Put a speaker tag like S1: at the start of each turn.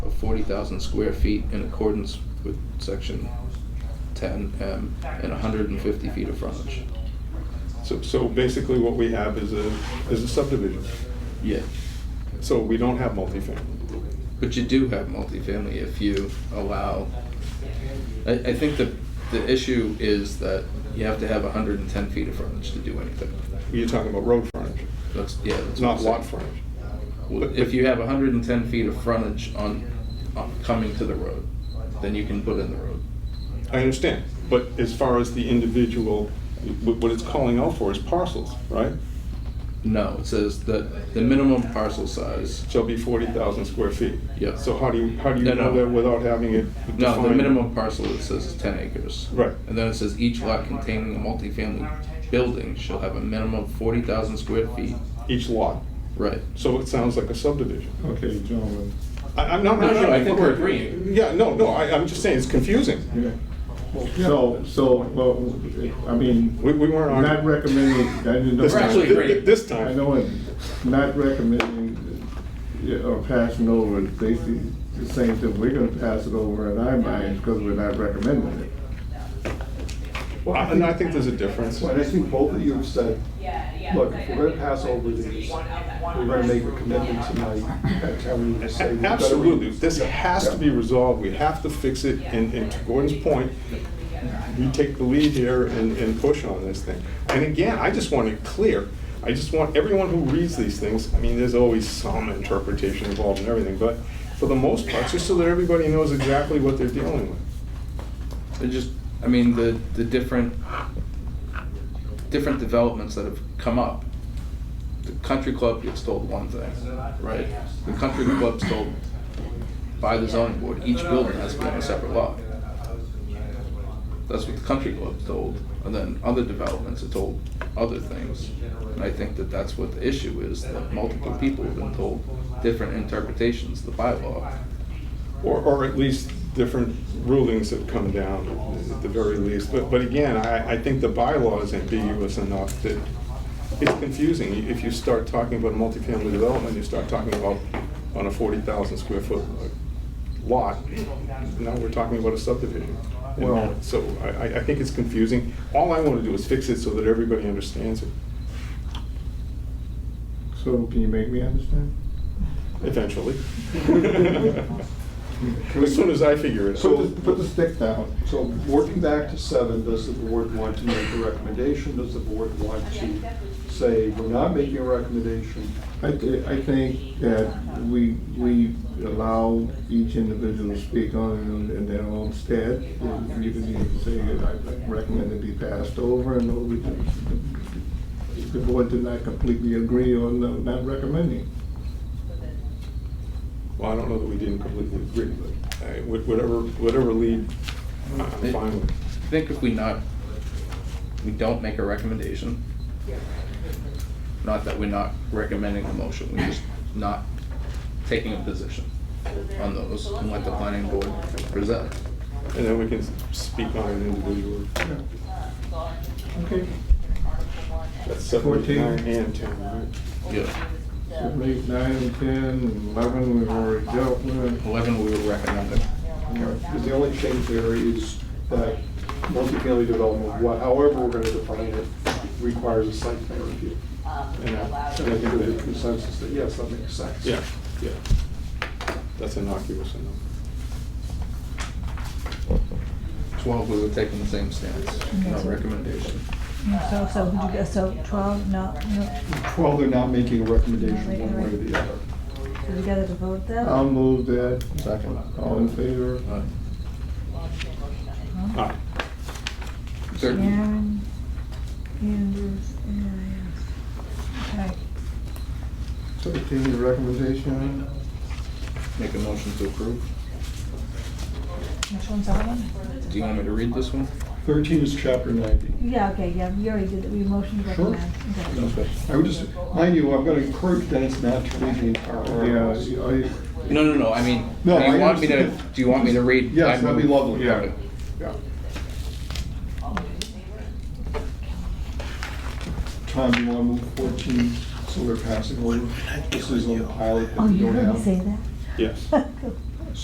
S1: forty thousand square feet in accordance with section ten M and hundred and fifty feet of frontage.
S2: So, so basically what we have is a, is a subdivision.
S1: Yeah,
S2: So we don't have multifamily.
S1: but you do have multifamily if you allow, I, I think the, the issue is that you have to have hundred and ten feet of frontage to do anything.
S2: You're talking about road frontage,
S1: That's, yeah, that's. what
S2: not
S1: I'm
S2: lot
S1: saying.
S2: frontage.
S1: Well, If you have hundred and ten feet of frontage on, on coming to the road, then you can put in the road.
S2: I understand, but as far as the individual, wh- what it's calling out for is parcels, right?
S1: No, it says that the minimum parcel size,
S2: Shall be forty thousand square feet.
S1: Yeah.
S2: So how do you, how do you
S1: No,
S2: know
S1: no.
S2: that without having it defined?
S1: no, the minimum parcel it says is ten acres.
S2: Right.
S1: And then it says each lot containing a multifamily building shall have a minimum of forty thousand square feet.
S2: Each lot.
S1: Right.
S2: So it sounds like a subdivision.
S3: Okay, gentlemen.
S2: I, I'm not.
S1: No, no, I think we're agreeing.
S2: Yeah, no, no, I, I'm just saying, it's confusing.
S3: Yeah. So, so, well, I mean,
S2: We, we weren't arguing.
S3: not recommending, I didn't know.
S2: This
S1: We're
S2: time-
S1: actually
S2: thi- thi-
S1: agreeing.
S2: This
S3: I
S2: time,
S3: know it, not recommending yeah, or passing over, basically the same thing, we're gonna pass it over in our minds because we're not recommending it.
S2: Well, I- and I think there's a difference.
S4: Well, and I think both of you have said, look, if we're gonna pass over these, we're gonna make a commitment tonight, that's how we say. we better-
S2: Absolutely, this has to be resolved, we have to fix it, and, and to Gordon's point, we take the lead here and, and push on this thing. And again, I just want it clear, I just want everyone who reads these things, I mean, there's always some interpretation involved in everything, but for the most part, just so that everybody knows exactly what they're dealing with.
S1: It just, I mean, the, the different, different developments that have come up. The country club gets told one thing, right? The country club's told by the zoning board, each building has to be on a separate lot. That's what the country club's told, and then other developments are told other things. And I think that that's what the issue is, that multiple people have been told different interpretations of the bylaw.
S2: Or, or at least different rulings that come down at the very least. But, but again, I, I think the bylaw is ambiguous enough that it's confusing. If you start talking about multifamily development, you start talking about on a forty thousand square foot lot, now we're talking about a subdivision. And
S3: Well-
S2: So I, I, I think it's confusing. All I want to do is fix it so that everybody understands it
S3: So can you make me understand?
S2: eventually.
S4: Can we-
S2: As soon as I figure it out.
S4: So-
S3: Put the, put the stick down.
S4: So working back to seven, does the board want to make a recommendation? Does the board want to say, we're not making a recommendation?
S3: I, thi- I think that we, we allow each individual to speak on it in their own stead. If You can even say, I recommend it be passed over, and or we, if the board did not completely agree on the- not recommending.
S2: Well, I don't know that we didn't completely agree, but uh, wh- whatever, whatever lead, uh, I'm fine with.
S1: I think if we not, we don't make a recommendation, not that we're not recommending the motion, we're just not taking a position on those and let the planning board present.
S2: And then we can s- speak on an individual.
S3: Okay.
S2: That's seven, eight,
S3: 14.
S2: nine, and ten, right?
S1: Yeah,
S3: Seven, eight, nine, and ten, and eleven, we've already dealt with.
S1: eleven, we were recommending.
S4: Because the only change there is that multifamily development, wha- however we're gonna define it, requires a site plan review.
S2: And I-
S4: And I think there's a consensus that, yes, that makes sense.
S2: Yeah, yeah. That's innocuous enough.
S1: Twelve, we were taking the same stance, no recommendation.
S5: So, so, would you go- so twelve, no, no,
S4: Twelve, they're not making a recommendation one way or the other.
S5: so you gotta vote that?
S3: I'll
S4: Um,
S3: move that.
S1: Second.
S3: All in favor?
S1: Alright.
S4: uh,
S2: All right,
S1: Thirteen,
S5: Sharon, Andrews, Arias. Okay,
S3: Thirteen, the recommendation.
S1: make a motion to approve.
S5: which one's that one?
S1: Do you want me to read this one?
S4: Thirteen is chapter ninety.
S5: Yeah, okay, yeah, we already did, it. we motioned to
S4: Sure.
S5: recommend. Okay.
S1: Okay.
S4: I would just, mind you, I'm gonna encourage Dennis not to read the entire
S3: Yeah,
S4: article.
S3: I,
S1: No, no, no, I mean, do
S4: No, I
S1: you want me to,
S4: understand.
S1: do you want me to read?
S4: Yes,
S1: I
S4: that'd be
S1: move-
S4: lovely.
S3: Yeah.
S1: Okay.
S4: Yeah. Tom, you wanna move fourteen, so we're passing over? This is on the pilot that
S5: Oh,
S4: we
S5: you
S4: don't
S5: heard me say
S4: have.
S5: that?
S2: yes.
S5: Good